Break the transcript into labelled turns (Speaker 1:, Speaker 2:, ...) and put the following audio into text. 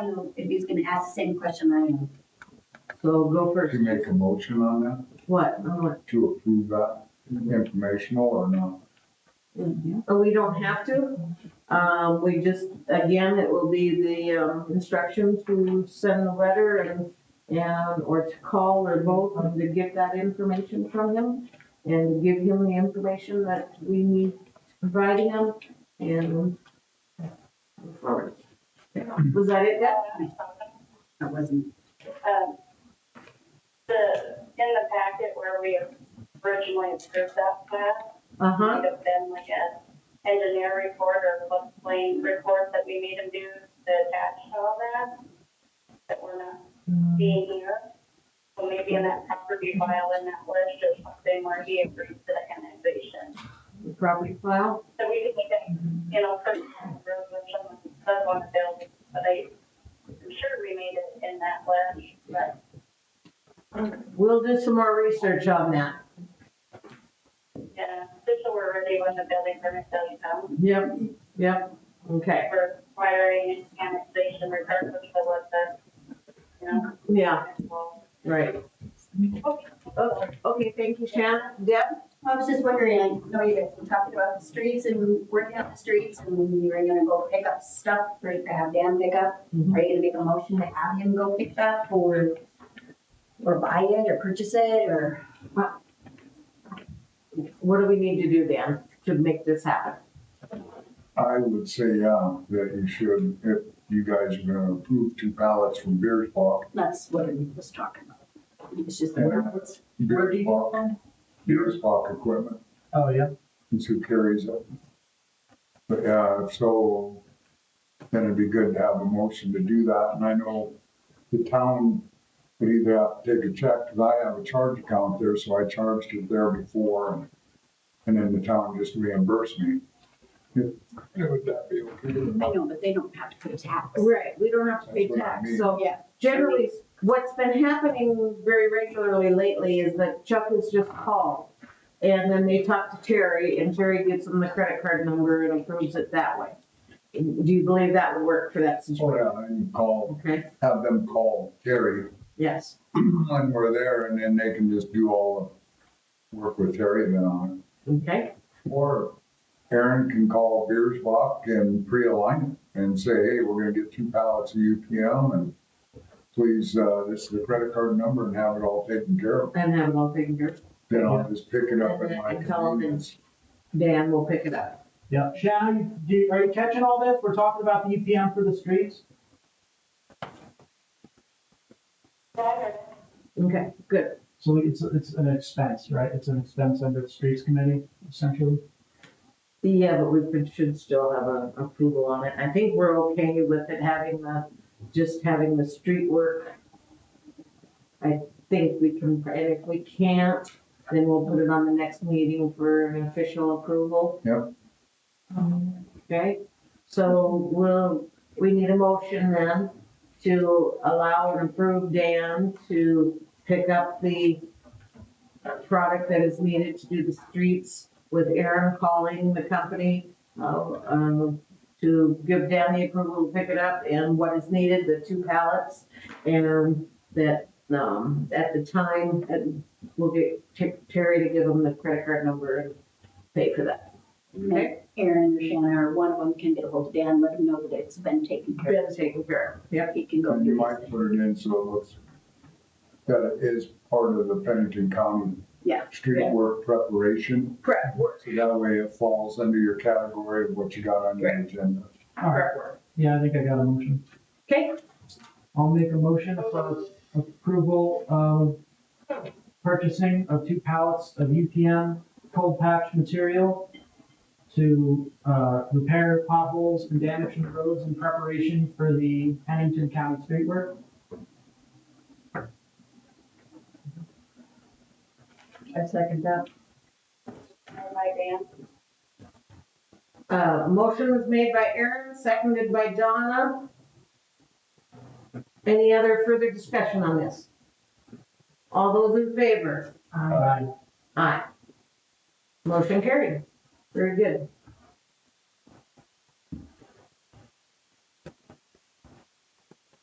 Speaker 1: I don't know if he's gonna ask the same question I am.
Speaker 2: So go
Speaker 3: To
Speaker 2: first.
Speaker 3: make a motion on that,
Speaker 2: What? On what?
Speaker 3: to approve that informational or not?
Speaker 2: Oh, we don't have to. Um, we just, again, it will be the, um, instructions to send the letter and, and, or to call or both and to get that information from him and give him the information that we need providing him and move forward. Was that it, Deb?
Speaker 1: That wasn't,
Speaker 4: Um, The, in the packet where we originally approved that plan,
Speaker 2: Uh-huh.
Speaker 4: would have been like an engineer report or floodplain report that we made him do to attach to all that, that we're not seeing here. So maybe in that property file in that list or something where he agrees to the annexation.
Speaker 2: The property file?
Speaker 4: So we just need to, you know, put resolution, that's one of those, but I, I'm sure we made it in that list, but
Speaker 2: We'll do some more research on that.
Speaker 4: Yeah, just so we're ready when the building permit does come.
Speaker 2: Yep, yep, okay,
Speaker 4: We're requiring annexation regardless of what the, you know.
Speaker 2: yeah,
Speaker 4: well,
Speaker 2: right.
Speaker 4: Okay.
Speaker 2: Oh, Okay, thank you, Shannon. Deb?
Speaker 1: I was just wondering, I know you guys were talking about the streets and working out the streets and you were gonna go pick up stuff or to have Dan pick up.
Speaker 2: Mhm.
Speaker 1: Are you gonna make a motion to have him go pick up or, or buy it or purchase it or?
Speaker 2: What do we need to do, Dan, to make this happen?
Speaker 3: I would say, yeah, that you should, if you guys are gonna approve two pallets from Beer's Paw.
Speaker 1: That's what I was talking about. It's just the
Speaker 3: Yeah.
Speaker 1: words. Where do
Speaker 3: Beer's
Speaker 1: you
Speaker 3: Paw, Beer's Paw Equipment,
Speaker 5: Oh, yeah.
Speaker 3: it's who carries it. But, yeah, so then it'd be good to have a motion to do that, and I know the town would either have to take a check, because I have a charge account there, so I charged it there before, and, and then the town just reimbursed me. Would that be okay? or
Speaker 1: I
Speaker 3: not?
Speaker 1: know, but they don't have to put a tax.
Speaker 2: Right, we don't have to pay
Speaker 3: That's what I
Speaker 2: tax,
Speaker 3: mean.
Speaker 2: so
Speaker 1: Yeah.
Speaker 2: generally, what's been happening very regularly lately is that Chuck is just called. And then they talk to Terry, and Terry gives them the credit card number and approves it that way. Do you believe that would work for that
Speaker 3: Oh,
Speaker 2: situation?
Speaker 3: yeah, and call,
Speaker 2: Okay,
Speaker 3: have them call Terry
Speaker 2: yes,
Speaker 3: when we're there, and then they can just do all the work with Terry then on
Speaker 2: okay,
Speaker 3: it. Or Aaron can call Beers Block and pre-align it and say, hey, we're gonna get two pallets of UPM and please, uh, this is the credit card number and have it all taken care of.
Speaker 2: and have it all taken care of.
Speaker 3: Then I'll just pick it up at my
Speaker 2: And tell 'em it's-
Speaker 3: convenience.
Speaker 2: Dan will pick it up.
Speaker 5: Yeah. Shannon, do, you- are you catching all this? We're talking about the UPM for the streets?
Speaker 2: Okay, good.
Speaker 5: So it's, it's an expense, right? It's an expense under the streets committee essentially?
Speaker 2: Yeah, but we could- should still have a approval on it. I think we're okay with it having the, just having the street work. I think we can, and if we can't, then we'll put it on the next meeting for an official approval.
Speaker 3: Yep.
Speaker 2: Okay, so we'll, we need a motion then to allow and approve Dan to pick up the product that is needed to do the streets with Aaron calling the company, uh, um, to give Dan the approval to pick it up and what is needed, the two pallets. And that, um, at the time, and we'll get Ter- Terry to give him the credit card number and pay for that. Okay?
Speaker 1: Aaron or Shannon or one of them can get ahold of Dan, let him know that it's been taken care
Speaker 2: Been taken care of. Yep.
Speaker 1: of. He can go
Speaker 3: And you
Speaker 1: do this.
Speaker 3: might put it in so it looks that it is part of the Pennington County
Speaker 1: Yeah.
Speaker 3: street
Speaker 1: Yeah.
Speaker 3: work preparation.
Speaker 2: Prep work.
Speaker 3: So that way it falls under your category of what you got on your agenda.
Speaker 5: All right.
Speaker 2: Prep work.
Speaker 5: Yeah, I think I got a motion.
Speaker 2: Okay,
Speaker 5: I'll make a motion for approval of purchasing of two pallets of UPM cold patch material to, uh, repair potholes and damage in roads in preparation for the Pennington County street work.
Speaker 2: I second that.
Speaker 4: My Dan,
Speaker 2: Uh, motion was made by Aaron, seconded by Donna. Any other further discussion on this? All those in favor?
Speaker 5: Aye.
Speaker 2: Aye. Motion carried. Very good.